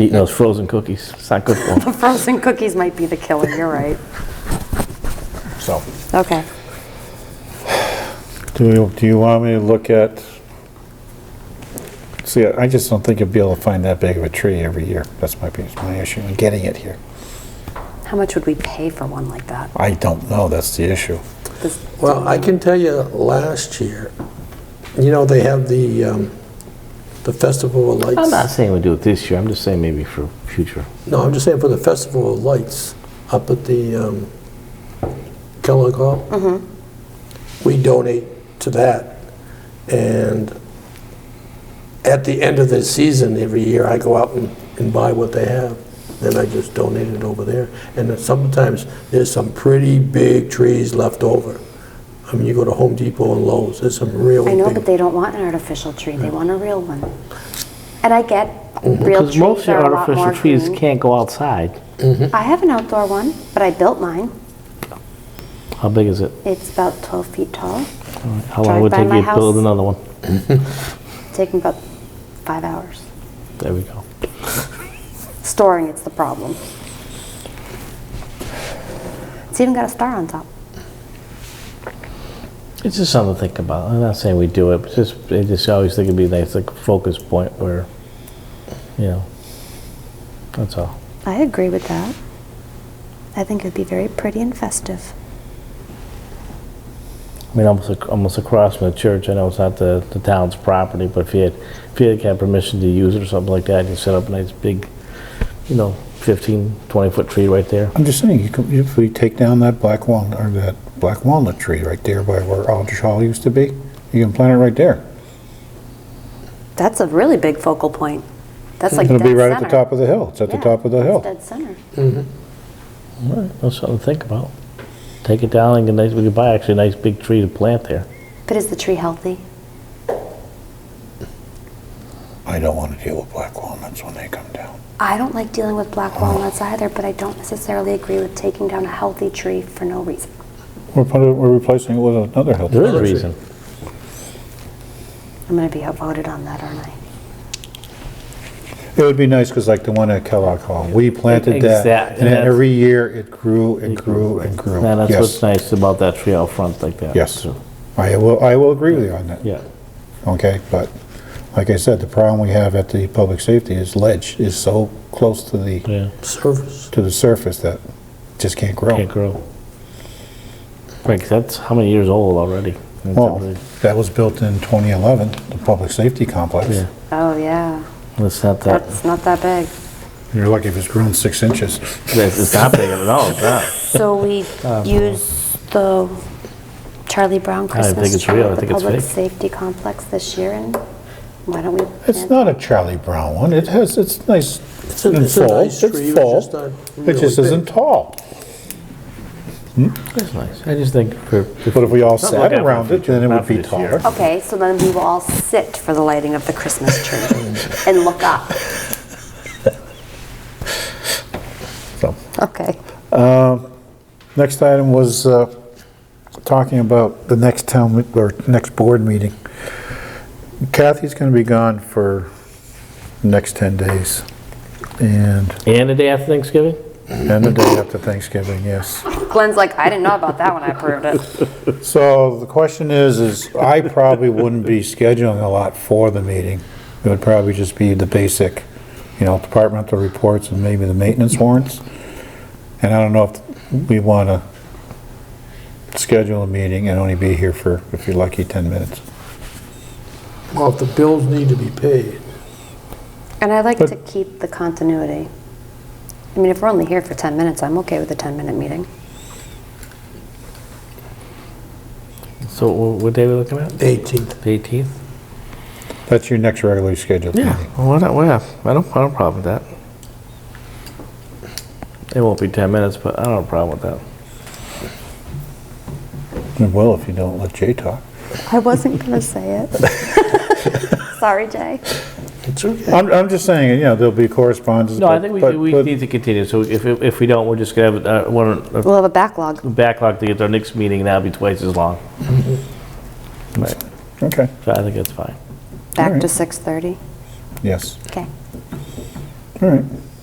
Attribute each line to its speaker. Speaker 1: Eating those frozen cookies, it's not good for 'em.
Speaker 2: The frozen cookies might be the killer, you're right.
Speaker 3: so.
Speaker 2: Okay.
Speaker 3: Do you, do you want me to look at? See, I just don't think you'll be able to find that big of a tree every year. That's my, biggest- my issue in getting it here.
Speaker 2: How much would we pay for one like that?
Speaker 3: I don't know, that's the issue.
Speaker 2: Does-
Speaker 4: Well, I can tell you, last year, you know, they have the, um, the Festival of
Speaker 1: I'm not
Speaker 4: Lights.
Speaker 1: saying we do it this year, I'm just saying maybe for future.
Speaker 4: No, I'm just saying for the Festival of Lights up at the um, Kellogg Hall.
Speaker 2: Mm-hmm.
Speaker 4: We donate to that. And at the end of the season, every year, I go out and, and buy what they have. Then I just donate it over there. And then sometimes there's some pretty big trees left over. I mean, you go to Home Depot and Lowe's, there's some real
Speaker 2: I
Speaker 4: big.
Speaker 2: know, but they don't want an artificial tree, they want a real one. And I get, real
Speaker 1: Hmm. Because most
Speaker 2: trees
Speaker 1: of your
Speaker 2: are a lot more
Speaker 1: artificial trees
Speaker 2: green.
Speaker 1: can't go outside.
Speaker 2: I have an outdoor one, but I built mine.
Speaker 1: How big is it?
Speaker 2: It's about 12 feet tall,
Speaker 1: How long would it
Speaker 2: Drive
Speaker 1: take
Speaker 2: by
Speaker 1: you
Speaker 2: my
Speaker 1: to build
Speaker 2: house.
Speaker 1: another one?
Speaker 2: taking about five hours.
Speaker 1: There we go.
Speaker 2: Storing it's the problem. It's even got a star on top.
Speaker 1: It's just something to think about. I'm not saying we do it, but just, I just always think it'd be nice, like a focus point where, you know, that's all.
Speaker 2: I agree with that. I think it'd be very pretty and festive.
Speaker 1: I mean, almost, ac- almost across from the church, I know it's not the, the town's property, but if you had, if you had had permission to use it or something like that, you set up a nice big, you know, 15, 20 foot tree right there.
Speaker 3: I'm just saying, you could, if we take down that black walnut, or that black walnut tree right there by where Aldrich Hall used to be, you can plant it right there.
Speaker 2: That's a really big focal point. That's like
Speaker 3: It'll be
Speaker 2: dead
Speaker 3: right at the
Speaker 2: center.
Speaker 3: top of the hill, it's at the
Speaker 2: Yeah,
Speaker 3: top of the
Speaker 2: it's
Speaker 3: hill.
Speaker 2: Dead center.
Speaker 1: All right, that's something to think about. Take it down and get nice, we could buy actually a nice big tree to plant there.
Speaker 2: But is the tree healthy?
Speaker 3: I don't want to deal with black walnuts when they come down.
Speaker 2: I don't like dealing with black
Speaker 3: Oh.
Speaker 2: walnuts either, but I don't necessarily agree with taking down a healthy tree for no reason.
Speaker 3: We're putting, we're replacing it with another hill.
Speaker 1: There is a reason.
Speaker 2: I'm going to be outvoted on that, aren't I?
Speaker 3: It would be nice, because like the one at Kellogg Hall, we planted that,
Speaker 1: Exact-
Speaker 3: and
Speaker 1: that's-
Speaker 3: every year it grew and grew and grew.
Speaker 1: And that's
Speaker 3: Yes.
Speaker 1: what's nice about that tree out front like that.
Speaker 3: Yes,
Speaker 1: So,
Speaker 3: I will, I will agree with you on that,
Speaker 1: Yeah.
Speaker 3: okay? But like I said, the problem we have at the public safety is ledge is so close to the,
Speaker 1: Yeah.
Speaker 4: Service.
Speaker 3: to the surface that just can't grow.
Speaker 1: Can't grow. Right, 'cause that's how many years old already? That's
Speaker 3: Well,
Speaker 1: already-
Speaker 3: that was built in 2011, the public safety complex.
Speaker 1: Yeah.
Speaker 2: Oh, yeah.
Speaker 1: It's not that,
Speaker 2: That's not that big.
Speaker 3: You're lucky if it's grown six inches.
Speaker 1: it's it's not big at all, it's not.
Speaker 2: So we
Speaker 3: Uh,
Speaker 2: use the Charlie Brown
Speaker 1: think
Speaker 2: Christmas
Speaker 1: it's
Speaker 2: tree
Speaker 1: real. I
Speaker 2: at the
Speaker 1: think it's
Speaker 2: Public
Speaker 1: fake.
Speaker 2: Safety Complex this year, and why don't we?
Speaker 3: It's
Speaker 2: plant-
Speaker 3: not a Charlie Brown one, it has, it's nice
Speaker 4: It's a-
Speaker 3: and
Speaker 4: it's a
Speaker 3: full,
Speaker 4: nice
Speaker 3: it's
Speaker 4: tree, it's just
Speaker 3: full,
Speaker 4: not
Speaker 3: it just
Speaker 4: really
Speaker 3: isn't
Speaker 4: big.
Speaker 3: tall.
Speaker 1: It's nice. I just think for,
Speaker 3: But if we all
Speaker 1: Not
Speaker 3: sat
Speaker 1: looking at
Speaker 3: around
Speaker 1: for
Speaker 3: it, then it
Speaker 1: not
Speaker 3: would
Speaker 1: for
Speaker 3: be
Speaker 1: this year.
Speaker 3: taller.
Speaker 2: Okay, so then we will all sit for the lighting of the Christmas tree and look up.
Speaker 3: So,
Speaker 2: Okay.
Speaker 3: Next item was uh, talking about the next town, me- or next board meeting. Kathy's going to be gone for the next 10 days, and,
Speaker 1: and the day after Thanksgiving?
Speaker 3: and the day after Thanksgiving, yes.
Speaker 2: Glenn's like, I didn't know about that when I approved it.
Speaker 3: So the question is, is I probably wouldn't be scheduling a lot for the meeting. It would probably just be the basic, you know, departmental reports and maybe the maintenance warrants. And I don't know if we want to schedule a meeting and only be here for, if you're lucky, 10 minutes.
Speaker 4: Well, if the bills need to be paid,
Speaker 2: And I like
Speaker 3: But-
Speaker 2: to keep the continuity. I mean, if we're only here for 10 minutes, I'm okay with a 10-minute meeting.
Speaker 1: So wh- what day are we looking at?
Speaker 4: 18th.
Speaker 1: The 18th?
Speaker 3: That's your next regularly scheduled
Speaker 1: Yeah,
Speaker 3: meeting.
Speaker 1: well, why not, why not? I don't, I don't have a problem with that. It won't be 10 minutes, but I don't have a problem with that.
Speaker 3: And Well, if you don't let Jay talk.
Speaker 2: I wasn't going to say it. Sorry, Jay.
Speaker 4: It's okay.
Speaker 3: I'm, I'm just saying, you know, there'll be correspondence.
Speaker 1: No, I
Speaker 3: but-
Speaker 1: think we,
Speaker 3: but-
Speaker 1: we
Speaker 3: but-
Speaker 1: need to continue, so if, if we don't, we're just gonna have, uh, one, a
Speaker 2: We'll have a backlog.
Speaker 1: backlog to get to our next meeting, and that'll be twice as long. Right,
Speaker 3: Okay,
Speaker 1: so I think that's fine.
Speaker 2: Back
Speaker 3: Alright.
Speaker 2: to 6:30.
Speaker 3: yes.
Speaker 2: Okay.
Speaker 3: All right.